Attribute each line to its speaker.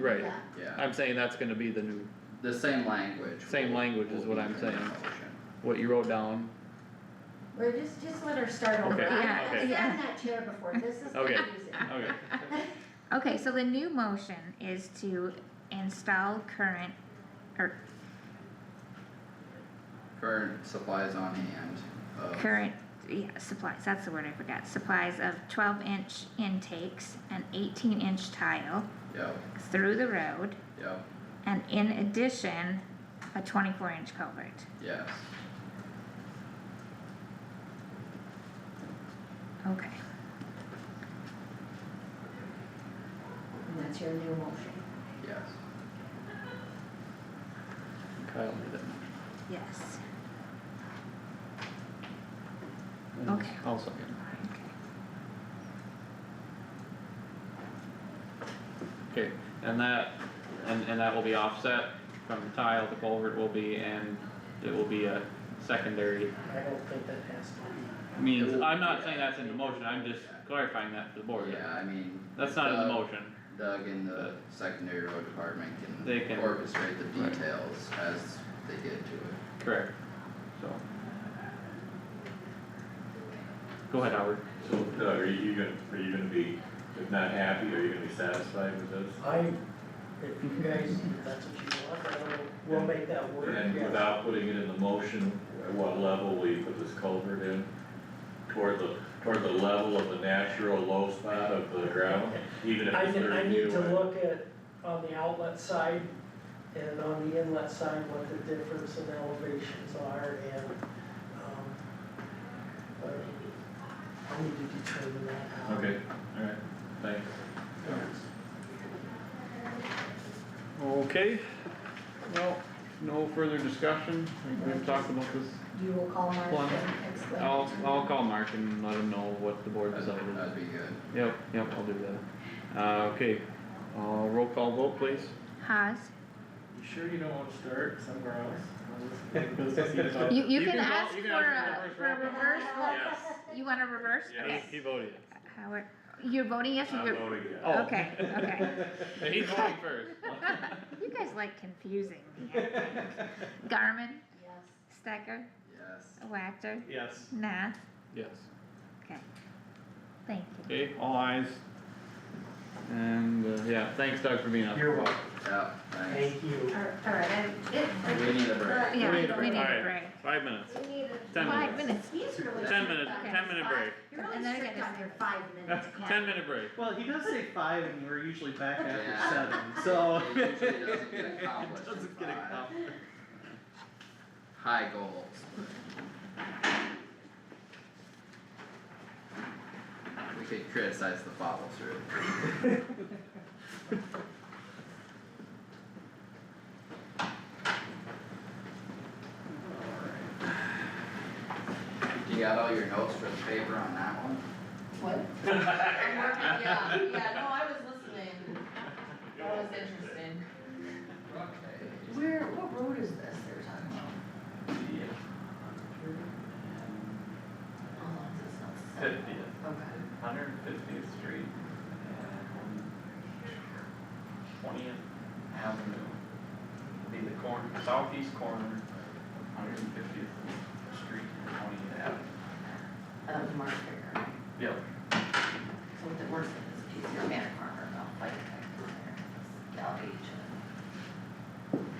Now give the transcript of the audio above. Speaker 1: Right,
Speaker 2: Yeah.
Speaker 3: Yeah,
Speaker 1: I'm saying that's gonna be the new,
Speaker 3: the same language.
Speaker 1: Same
Speaker 3: will-
Speaker 1: language is what
Speaker 3: will be
Speaker 1: I'm
Speaker 3: in the
Speaker 1: saying.
Speaker 3: motion.
Speaker 1: what you wrote down,
Speaker 2: Or just, just let her start over.
Speaker 1: Okay,
Speaker 2: I- I've
Speaker 1: okay.
Speaker 2: sat in that chair before, this is
Speaker 1: Okay.
Speaker 2: confusing.
Speaker 1: okay.
Speaker 4: Okay, so the new motion is to install current, or
Speaker 3: Current supplies on hand of.
Speaker 4: current, yeah, supplies, that's the word I forgot, supplies of twelve inch intakes and eighteen inch tile
Speaker 3: Yep,
Speaker 4: through the road,
Speaker 3: yep,
Speaker 4: and in addition, a twenty-four inch culvert,
Speaker 3: yes,
Speaker 4: okay.
Speaker 2: And that's your new motion.
Speaker 3: yes.
Speaker 1: Kyle made it.
Speaker 4: Yes.
Speaker 1: And
Speaker 4: Okay.
Speaker 1: I'll second.
Speaker 4: Okay.
Speaker 5: Okay, and that, and, and that will be offset from tile to culvert will be, and it will be a secondary
Speaker 6: I don't think that has to be.
Speaker 5: means, I'm not saying that's in the motion, I'm just clarifying that for the
Speaker 1: Oh,
Speaker 5: board.
Speaker 3: Yeah, Uh, I mean.
Speaker 5: That's not in the
Speaker 3: Doug-
Speaker 5: motion,
Speaker 3: Doug and the secondary road department
Speaker 5: They
Speaker 3: can
Speaker 5: can-
Speaker 3: orchestrate the
Speaker 5: Right.
Speaker 3: details as they get to it.
Speaker 5: correct, so. Go ahead, Howard.
Speaker 7: So Doug, are you gonna, are you gonna be, if not happy, are you gonna be satisfied with this?
Speaker 6: I, if you guys, if that's what you want, I don't know, we'll make that work,
Speaker 7: And
Speaker 6: yeah.
Speaker 7: without putting it in the motion, at what level will you put this culvert in? Toward the, toward the level of the natural low spot of the ground, even if
Speaker 6: I
Speaker 7: it's
Speaker 6: need, I
Speaker 7: thirty
Speaker 6: need
Speaker 7: feet
Speaker 6: to
Speaker 7: away?
Speaker 6: look at, on the outlet side and on the inlet side, what the difference in elevations are and, um, but I need to determine that. out.
Speaker 7: Okay, alright, thanks.
Speaker 1: Okay, well, no further discussion, I think we've talked about this,
Speaker 2: You will call Mark
Speaker 1: Plum.
Speaker 2: and explain.
Speaker 1: I'll, I'll call Mark and let him know what the board decided.
Speaker 3: That'd, that'd be good.
Speaker 1: Yep, yep, I'll do that. Uh, okay, uh, roll call vote please.
Speaker 4: Haas,
Speaker 7: You sure you don't wanna start somewhere
Speaker 1: Yes.
Speaker 7: else?
Speaker 4: you, you
Speaker 1: You
Speaker 4: can
Speaker 1: can vote-
Speaker 4: ask
Speaker 1: you
Speaker 4: for
Speaker 1: can ask
Speaker 4: a, for
Speaker 1: for a
Speaker 4: a reverse vote, you want a reverse?
Speaker 7: Yes.
Speaker 1: He, he voted.
Speaker 4: Howard, you're voting yes,
Speaker 7: I'm
Speaker 4: or you're,
Speaker 7: voting yes.
Speaker 1: Oh.
Speaker 4: okay, okay.
Speaker 1: He's voting first.
Speaker 4: You guys like confusing me, I think. Garmin,
Speaker 2: Yes.
Speaker 4: Stecker,
Speaker 3: Yes,
Speaker 4: Wactor,
Speaker 6: Yes.
Speaker 4: Nah,
Speaker 1: Yes,
Speaker 4: okay. Thank you.
Speaker 1: okay, all eyes. And, uh, yeah, thanks Doug for being on.
Speaker 6: You're welcome.
Speaker 3: yeah, thanks.
Speaker 6: Thank you.
Speaker 2: All- All right, I- it- I-
Speaker 3: We need a break.
Speaker 4: Yeah,
Speaker 1: need a
Speaker 4: we
Speaker 1: break.
Speaker 4: need a
Speaker 1: Alright.
Speaker 4: break.
Speaker 1: Five minutes,
Speaker 2: We need a.
Speaker 1: Ten
Speaker 4: Five minutes.
Speaker 2: He's really.
Speaker 1: ten
Speaker 2: strict
Speaker 1: minute,
Speaker 2: on
Speaker 1: ten
Speaker 2: his
Speaker 1: minute
Speaker 2: five-
Speaker 1: break,
Speaker 2: You're
Speaker 4: And
Speaker 2: really
Speaker 4: then I
Speaker 2: strict
Speaker 4: get
Speaker 2: on your five minutes. Kat.
Speaker 1: ten minute break.
Speaker 8: Well, he does say five, and we're usually back
Speaker 3: Yeah.
Speaker 8: after seven, so.
Speaker 3: It usually doesn't get accomplished in
Speaker 8: Doesn't get
Speaker 3: five.
Speaker 8: accomplished.
Speaker 3: High goals. We could criticize the follow through. You got all your notes for the paper on that one?
Speaker 2: What? I'm working, yeah, yeah, no, I was listening. That was interesting.
Speaker 3: Okay.
Speaker 2: Where, what road is this they're talking about? Oh, it's not.
Speaker 7: Fiftieth,
Speaker 2: Okay.
Speaker 7: hundred fiftieth street and twentieth avenue. Be the corner, southeast corner, hundred fiftieth street and twentieth avenue.
Speaker 2: That was Mark Fair, right?
Speaker 7: Yep.
Speaker 2: So the worst of this piece, your manic farmer, I'll fight it back there, Gal H.